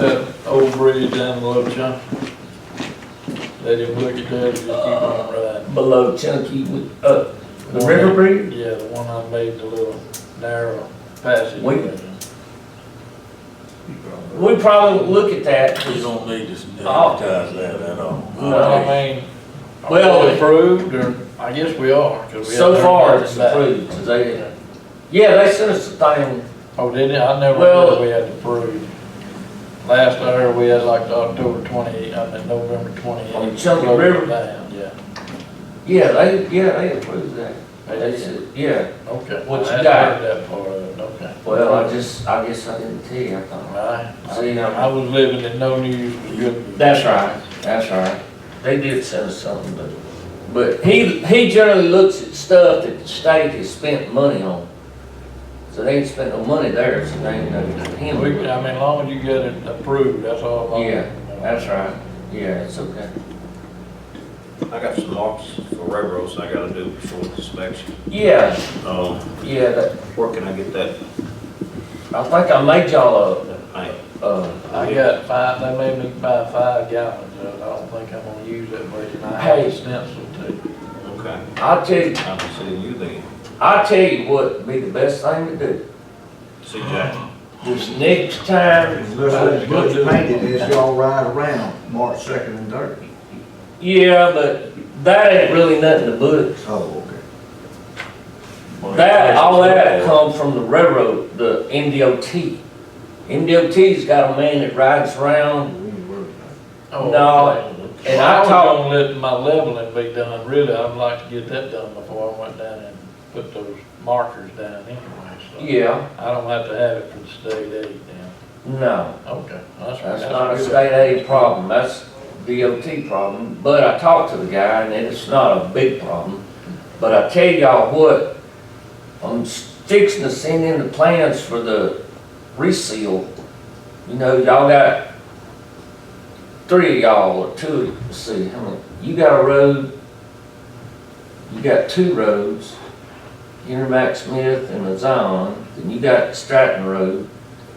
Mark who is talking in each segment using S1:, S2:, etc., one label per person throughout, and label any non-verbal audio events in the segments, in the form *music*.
S1: that Uh, old bridge down below Chunk? They didn't look at that, just keep on riding.
S2: below Chunky, with- uh, the
S1: One
S2: river
S1: that-
S2: bridge?
S1: Yeah, the one I made the little narrow passage.
S2: We- We probably won't look at that.
S3: We don't need to advertise that at all.
S1: Well, I mean,
S2: Well-
S1: well, approved, or, I guess we are. 'cause we haven't
S2: So
S1: heard
S2: far,
S1: nothing
S2: it's
S1: back.
S2: approved, 'cause they, yeah, they sent us a thing,
S1: Oh, did it? I never
S2: Well-
S1: knew we had to prove. Last I heard, we had like the October twenty, I mean, November twenty.
S2: On Chunky River?
S1: Yeah,
S2: yeah, they, yeah, they approved that. They said, yeah,
S1: okay.
S2: What you
S1: I hadn't
S2: got?
S1: heard That part of it, okay.
S2: well, I just, I guess I didn't tell you, I thought.
S1: Right.
S2: See,
S1: I-
S2: now-
S1: I was living in no news was good. news.
S2: That's right, that's right. They did send us something, but, but he, he generally looks at stuff that the state has spent money on. So they ain't spent no money there, so they ain't nothing
S1: We, I
S2: him.
S1: mean, as long as you get it approved, that's all. I'm-
S2: Yeah, that's right, yeah, it's okay.
S4: I got some marks for railroads I gotta do before inspection.
S2: Yeah,
S4: Um,
S2: yeah, that,
S4: where can I get that?
S2: I think I made y'all
S4: I,
S2: a, uh,
S1: I got five, they made me buy five gallons, of it. I don't think I'm gonna use that much, and I have
S2: Hey.
S1: a stencil too.
S4: okay,
S2: I'll tell you,
S4: I can see you then.
S2: I'll tell you what would be the best thing to do.
S4: See Jack.
S2: This next time,
S5: Unless that bridge painted, it's y'all ride around March second and third.
S2: yeah, but that ain't really nothing to books.
S5: Oh, okay.
S2: That, all that come from the railroad, the MDOT. MDOT's got a man that rides around,
S5: We ain't worried about
S1: Oh,
S2: No,
S1: okay.
S2: and
S1: Well,
S2: I
S1: was
S2: talked-
S1: gonna let my leveling be done, really, I'd like to get that done before I went down and put those markers down anyway, so.
S2: yeah,
S1: I don't have to have it for the state aid now,
S2: no,
S1: okay.
S2: that's not a
S1: good.
S2: state aid problem, that's DOT problem. But I talked to the guy, and it's not a big problem. But I tell y'all what, I'm fixing to send in the plans for the reseal. You know, y'all got three of y'all, or two, let's see, how many, you got a road, you got two roads, Henry Smith and Azon, then you got Stratton Road,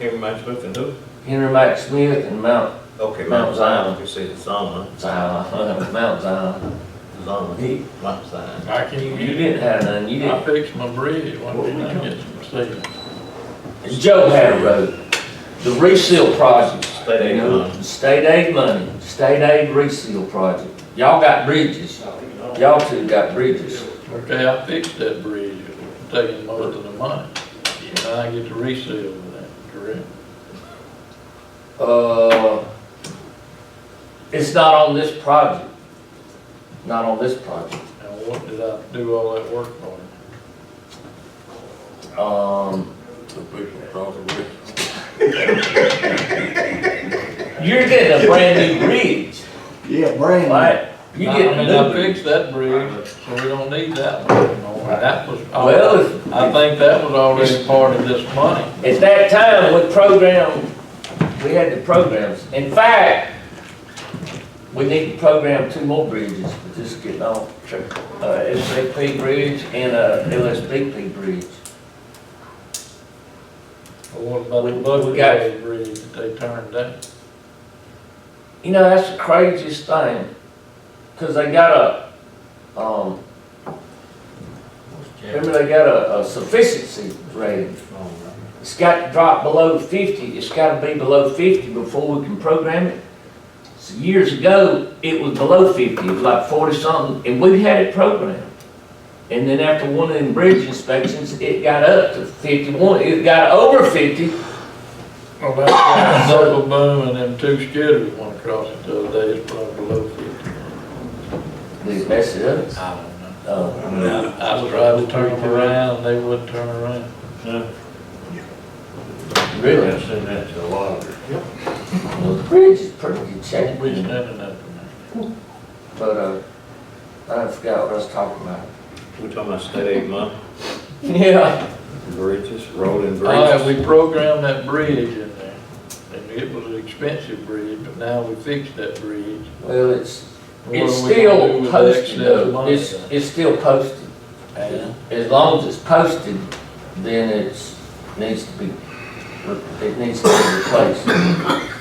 S4: Every match we can do.
S2: Henry Smith and Mount
S4: Okay.
S2: Mount Zion.
S4: You see the Zama,
S2: Zion, Mount Zion.
S4: Zama,
S2: You
S4: Mount Zion.
S1: I can use
S2: didn't have none, you
S1: it, I
S2: didn't,
S1: fixed my bridge, one day I get some steel.
S2: Joe had a road, the reseal project.
S4: State aid money.
S2: State aid money, state aid reseal project. Y'all got bridges, y'all two got bridges.
S1: Okay, I fixed that bridge, it was taking most of the money, and I get to reseal with that, correct?
S2: Uh, it's not on this project, not on this project.
S1: And what did I do all that work for?
S2: Um,
S3: The people across the river.
S2: you're getting a brand new bridge,
S5: it. Yeah, brand new.
S2: right? You
S1: I
S2: getting a
S1: mean, I
S2: new bridge.
S1: fixed that bridge, so we don't need that one anymore, that was,
S2: Well, if-
S1: I think that was already part of this money.
S2: At that time, we programmed, we had the programs. In fact, we need to program two more bridges, but this is getting off track. Uh, SAP Bridge and uh, a LSBP Bridge.
S1: But What about
S2: We-
S1: the
S2: we got-
S1: Buckeye Bridge that they turned down?
S2: You know, that's the craziest thing, because they got a, um, remember they got a, a sufficiency rating. It's got to drop below fifty, it's gotta be below fifty before we can program it. So years ago, it was below fifty, it was like forty something, and we had it programmed. And then after one of them bridge inspections, it got up to fifty-one, it got over fifty,
S1: Well, Oh, that's why the double boom and them two skidders went across it the other day, it's probably below fifty.
S2: they messed it up.
S1: I don't know.
S2: Uh,
S3: No.
S1: I was trying to turn them around, they wouldn't turn around.
S2: really,
S3: I've seen that to a lot of it.
S2: well, the bridge is pretty good shape.
S1: We standing up in
S2: But, uh, I forgot what I was talking about. *laughs*
S4: We talking about state aid money,
S2: Yeah.
S4: bridges, road and
S1: there. All right,
S4: bridges.
S1: Oh, Uh, we programmed that bridge in there, and it was an expensive bridge, but now we fixed that bridge.
S2: Well, it's,
S1: What are
S2: it's
S1: we gonna do
S2: still
S1: with the
S2: posted,
S1: excess
S2: though.
S1: money
S2: it's, it's still posted.
S1: then?
S2: As long as it's posted, then it's, needs to be, it needs to be replaced.